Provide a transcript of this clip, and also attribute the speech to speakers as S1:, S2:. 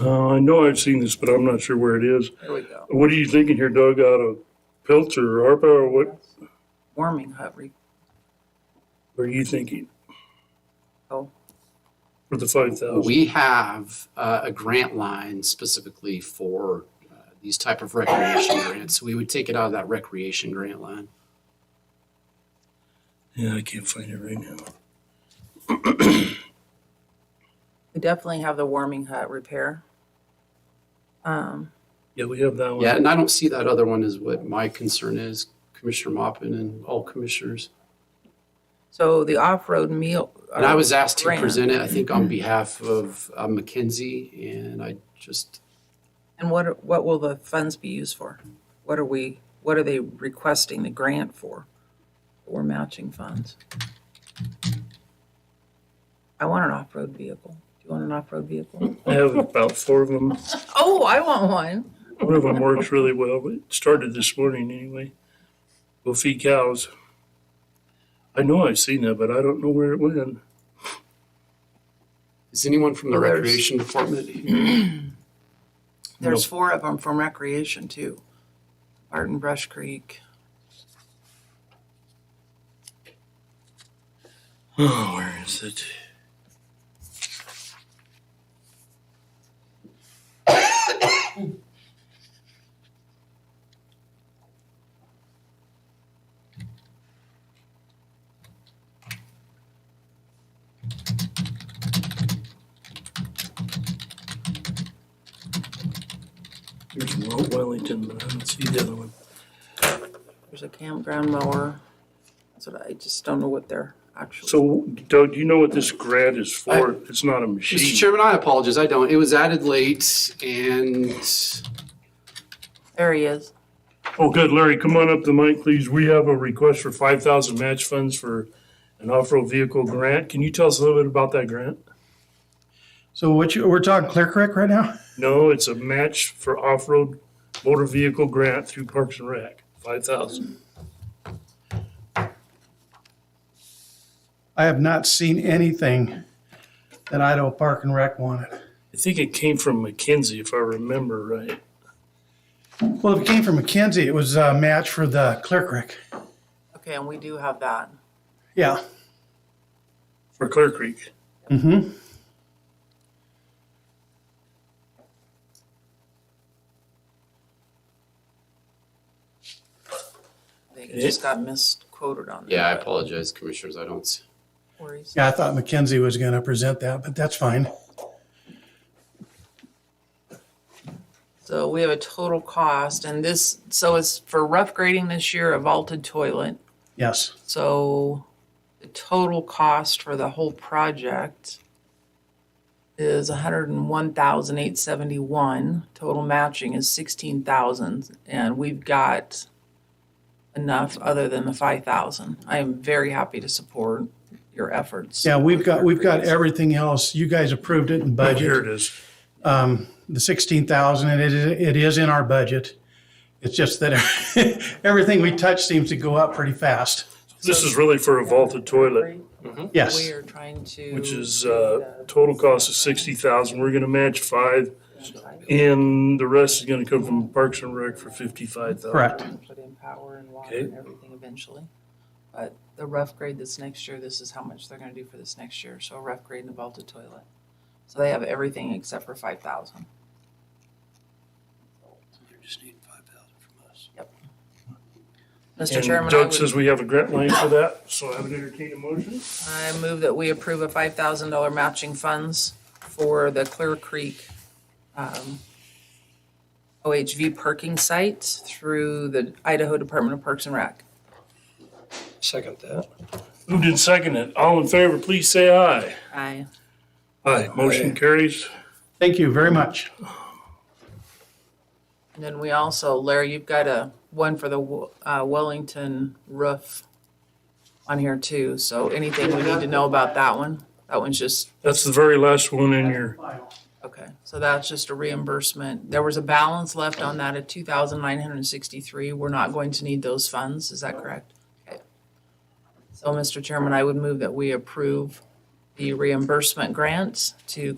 S1: Uh, I know I've seen this, but I'm not sure where it is.
S2: There we go.
S1: What are you thinking here, Doug, out of Pelzer or ARPA or what
S2: Warming hut re-
S1: are you thinking?
S2: Oh.
S1: For the five thousand?
S3: We have uh, a grant line specifically for uh, these type of recreation grants. So we would take it out of that recreation grant line.
S1: Yeah, I can't find it right now.
S2: We definitely have the warming hut repair. Um,
S1: Yeah, we have that one.
S3: Yeah, and I don't see that other one is what my concern is, Commissioner Mopin and all commissioners.
S2: so the off-road meal.
S3: And I was asked to
S2: Grant.
S3: present it, I think on behalf of uh, McKinsey, and I just,
S2: And what, are- what will the funds be used for? What are we, what are they requesting the grant for? We're matching funds. I want an off-road vehicle. Do you want an off-road vehicle?
S1: I have about four of them.
S2: Oh, I want one.
S1: One of them works really well, but it started this morning anyway. Will feed cows. I know I've seen that, but I don't know where it went.
S3: is anyone from the
S2: Well, there's-
S3: Recreation Department here?
S2: There's four of them from recreation too. Barton Brush Creek.
S1: Oh, where is it? There's Mount Wellington, but I don't see the other one.
S2: There's a campground mower. That's what I just don't know what they're actually.
S1: So Doug, do you know what this grant is for? It's not a
S3: Mr.
S1: machine.
S3: Chairman, I apologize, I don't. It was added late, and
S2: There he is.
S1: Oh, good. Larry, come on up to the mic, please. We have a request for five thousand match funds for an off-road vehicle grant. Can you tell us a little bit about that grant?
S4: So what you, we're talking Clear Creek right now?
S1: No, it's a match for off-road motor vehicle grant through Parks and Rec, five thousand.
S4: I have not seen anything that Idaho Park and Rec wanted.
S1: I think it came from McKinsey, if I remember right.
S4: Well, if it came from McKenzie, it was a match for the Clear Creek.
S2: Okay, and we do have that.
S4: Yeah.
S1: For Clear Creek.
S4: Mm-hmm.
S2: I think it just got misquoted on there.
S3: yeah, I
S2: but
S3: apologize, commissioners, I don't. see-
S2: no worries.
S4: Yeah, I thought McKenzie was going to present that, but that's fine.
S2: So we have a total cost and this, so it's for rough grading this year, a vaulted toilet.
S4: Yes.
S2: So the total cost for the whole project is a hundred and one thousand eight seventy-one. Total matching is sixteen thousand and we've got enough other than the five thousand. I am very happy to support your efforts.
S4: Yeah, we've got, we've got everything else. You guys approved it in
S1: Oh,
S4: budget.
S1: Here it is.
S4: um, the sixteen thousand, and it is, it is in our budget. It's just that everything we touch seems to go up pretty fast.
S1: This is really for a vaulted toilet,
S4: Yes,
S2: We are trying to.
S1: which is, uh, total cost of sixty thousand. We're gonna match five. And the rest is gonna come from Parks and Rec for fifty-five thousand.
S4: correct.
S2: Put in power and water
S1: Okay.
S2: and everything eventually. But the rough grade this next year, this is how much they're gonna do for this next year, so a rough grade and a vaulted toilet. So they have everything except for five thousand.
S1: They're just needing five thousand from us.
S2: Mr.
S1: And
S2: Chairman, I
S1: Doug
S2: would,
S1: says we have a grant line for that, so I would entertain a motion.
S2: I move that we approve a five thousand dollar matching funds for the Clear Creek, um, OHV parking site through the Idaho Department of Parks and Rec.
S5: Second that.
S1: Moved and seconded. All in favor, please say aye.
S2: Aye.
S1: Aye. Motion carries.
S4: Thank you very much.
S2: And then we also, Larry, you've got a, one for the Wo- uh, Wellington roof on here too, so anything we need to know about that one? That one's just,
S1: That's the very last one in your,
S2: okay, so that's just a reimbursement. There was a balance left on that of two thousand nine hundred and sixty-three. We're not going to need those funds, is that correct? Okay. So, Mr. Chairman, I would move that we approve the reimbursement grant to